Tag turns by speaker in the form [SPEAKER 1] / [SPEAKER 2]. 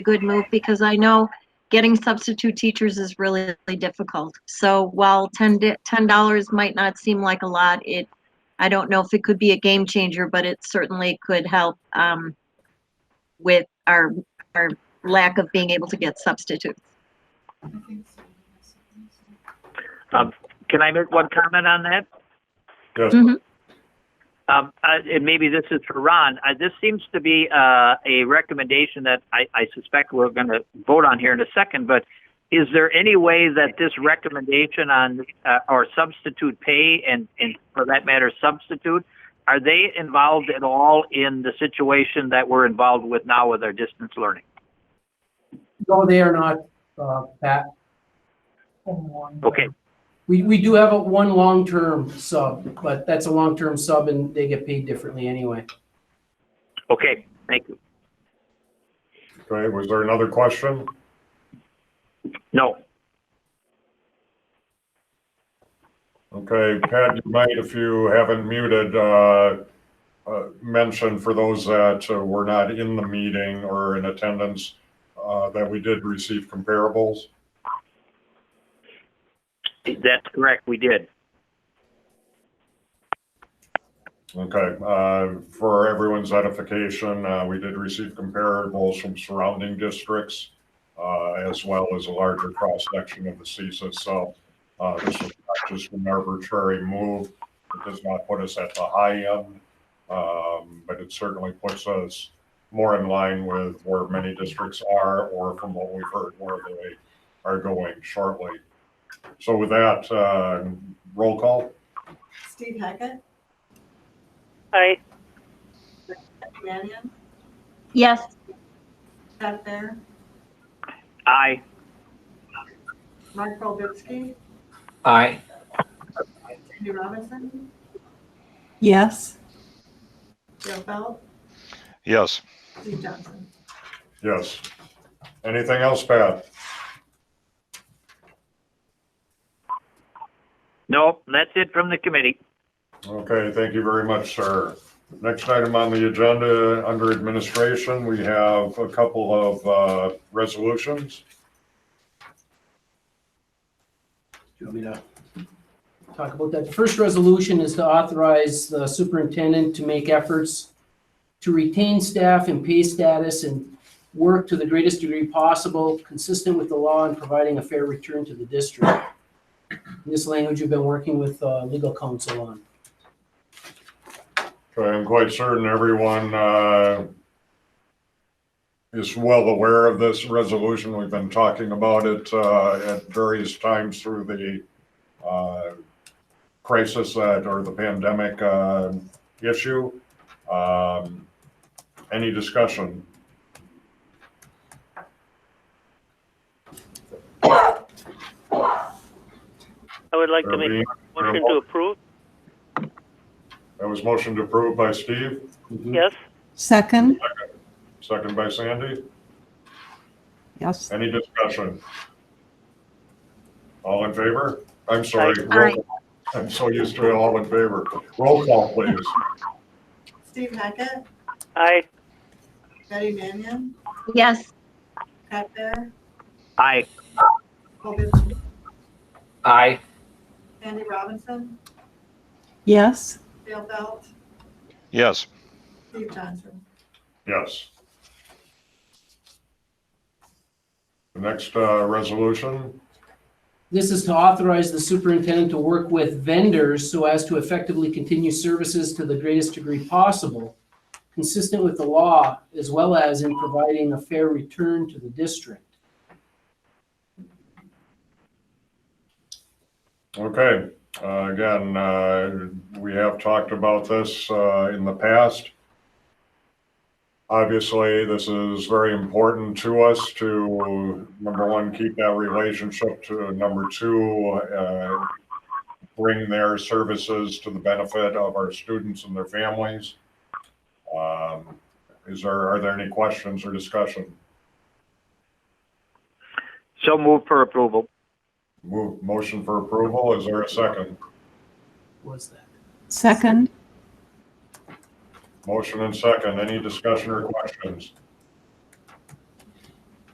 [SPEAKER 1] good move because I know getting substitute teachers is really really difficult. So while 10 di- $10 might not seem like a lot, it, I don't know if it could be a game changer, but it certainly could help um, with our, our lack of being able to get substitutes.
[SPEAKER 2] Can I make one comment on that?
[SPEAKER 3] Yes.
[SPEAKER 1] Mhm.
[SPEAKER 2] Um, uh, and maybe this is for Ron. Uh, this seems to be uh, a recommendation that I, I suspect we're going to vote on here in a second. But is there any way that this recommendation on uh, or substitute pay and, and for that matter substitute are they involved at all in the situation that we're involved with now with our distance learning?
[SPEAKER 4] No, they are not, uh, Pat.
[SPEAKER 2] Okay.
[SPEAKER 4] We, we do have a one long-term sub, but that's a long-term sub and they get paid differently anyway.
[SPEAKER 2] Okay. Thank you.
[SPEAKER 3] Okay, was there another question?
[SPEAKER 2] No.
[SPEAKER 3] Okay, Pat, you might, if you haven't muted, uh, uh, mention for those that uh, were not in the meeting or in attendance, uh, that we did receive comparables.
[SPEAKER 2] That's correct. We did.
[SPEAKER 3] Okay, uh, for everyone's edification, uh, we did receive comparables from surrounding districts, uh, as well as a larger cross-section of the CISA, so, uh, this is not just an arbitrary move. It does not put us at the high end, um, but it certainly puts us more in line with where many districts are, or from what we've heard, where they are going shortly. So with that, uh, roll call?
[SPEAKER 5] Steve Hackett,
[SPEAKER 6] Aye.
[SPEAKER 5] Mannion,
[SPEAKER 1] Yes,
[SPEAKER 5] Pat Fair,
[SPEAKER 2] Aye.
[SPEAKER 5] Mark Bobiski,
[SPEAKER 7] Aye.
[SPEAKER 5] Cindy Robinson,
[SPEAKER 6] Yes.
[SPEAKER 5] Joe Felt,
[SPEAKER 8] Yes.
[SPEAKER 5] Steve Johnson.
[SPEAKER 3] Yes. Anything else, Pat?
[SPEAKER 2] No. That's it from the committee.
[SPEAKER 3] Okay, thank you very much, sir. Next item on the agenda, under administration, we have a couple of uh, resolutions.
[SPEAKER 4] Do you want me to talk about that? The first resolution is to authorize the superintendent to make efforts to retain staff in pay status and work to the greatest degree possible, consistent with the law and providing a fair return to the district. This language you've been working with, uh, legal counsel on.
[SPEAKER 3] Okay, I'm quite certain everyone uh, is well aware of this resolution. We've been talking about it uh, at various times through the uh, crisis that- or the pandemic uh, issue. Um, Any discussion?
[SPEAKER 6] I would like to make
[SPEAKER 3] Irving?
[SPEAKER 6] a motion to approve.
[SPEAKER 3] That was motion to approve by Steve.
[SPEAKER 6] Yes.
[SPEAKER 9] Second,
[SPEAKER 3] Second by Sandy.
[SPEAKER 9] yes.
[SPEAKER 3] Any discussion? All in favor? I'm sorry.
[SPEAKER 6] Aye.
[SPEAKER 3] roll call. I'm so used to it, all in favor. Roll call, please.
[SPEAKER 5] Steve Hackett,
[SPEAKER 6] Aye.
[SPEAKER 5] Betty Mannion,
[SPEAKER 1] yes.
[SPEAKER 5] Pat Fair,
[SPEAKER 2] Aye.
[SPEAKER 5] Bobiski,
[SPEAKER 7] Aye.
[SPEAKER 5] Cindy Robinson,
[SPEAKER 9] Yes.
[SPEAKER 5] Joe Felt,
[SPEAKER 8] Yes.
[SPEAKER 5] Steve Johnson.
[SPEAKER 3] Yes. The next uh, resolution,
[SPEAKER 4] This is to authorize the superintendent to work with vendors so as to effectively continue services to the greatest degree possible, consistent with the law, as well as in providing a fair return to the district.
[SPEAKER 3] okay. uh, Again, uh, we have talked about this uh, in the past. Obviously, this is very important to us to, number one, keep that relationship to, number two, uh, bring their services to the benefit of our students and their families. Um, Is there, are there any questions or discussion?
[SPEAKER 2] So move for approval.
[SPEAKER 3] Move, motion for approval, is there a second?
[SPEAKER 4] Was that?
[SPEAKER 9] Second,
[SPEAKER 3] Motion and second, any discussion or questions?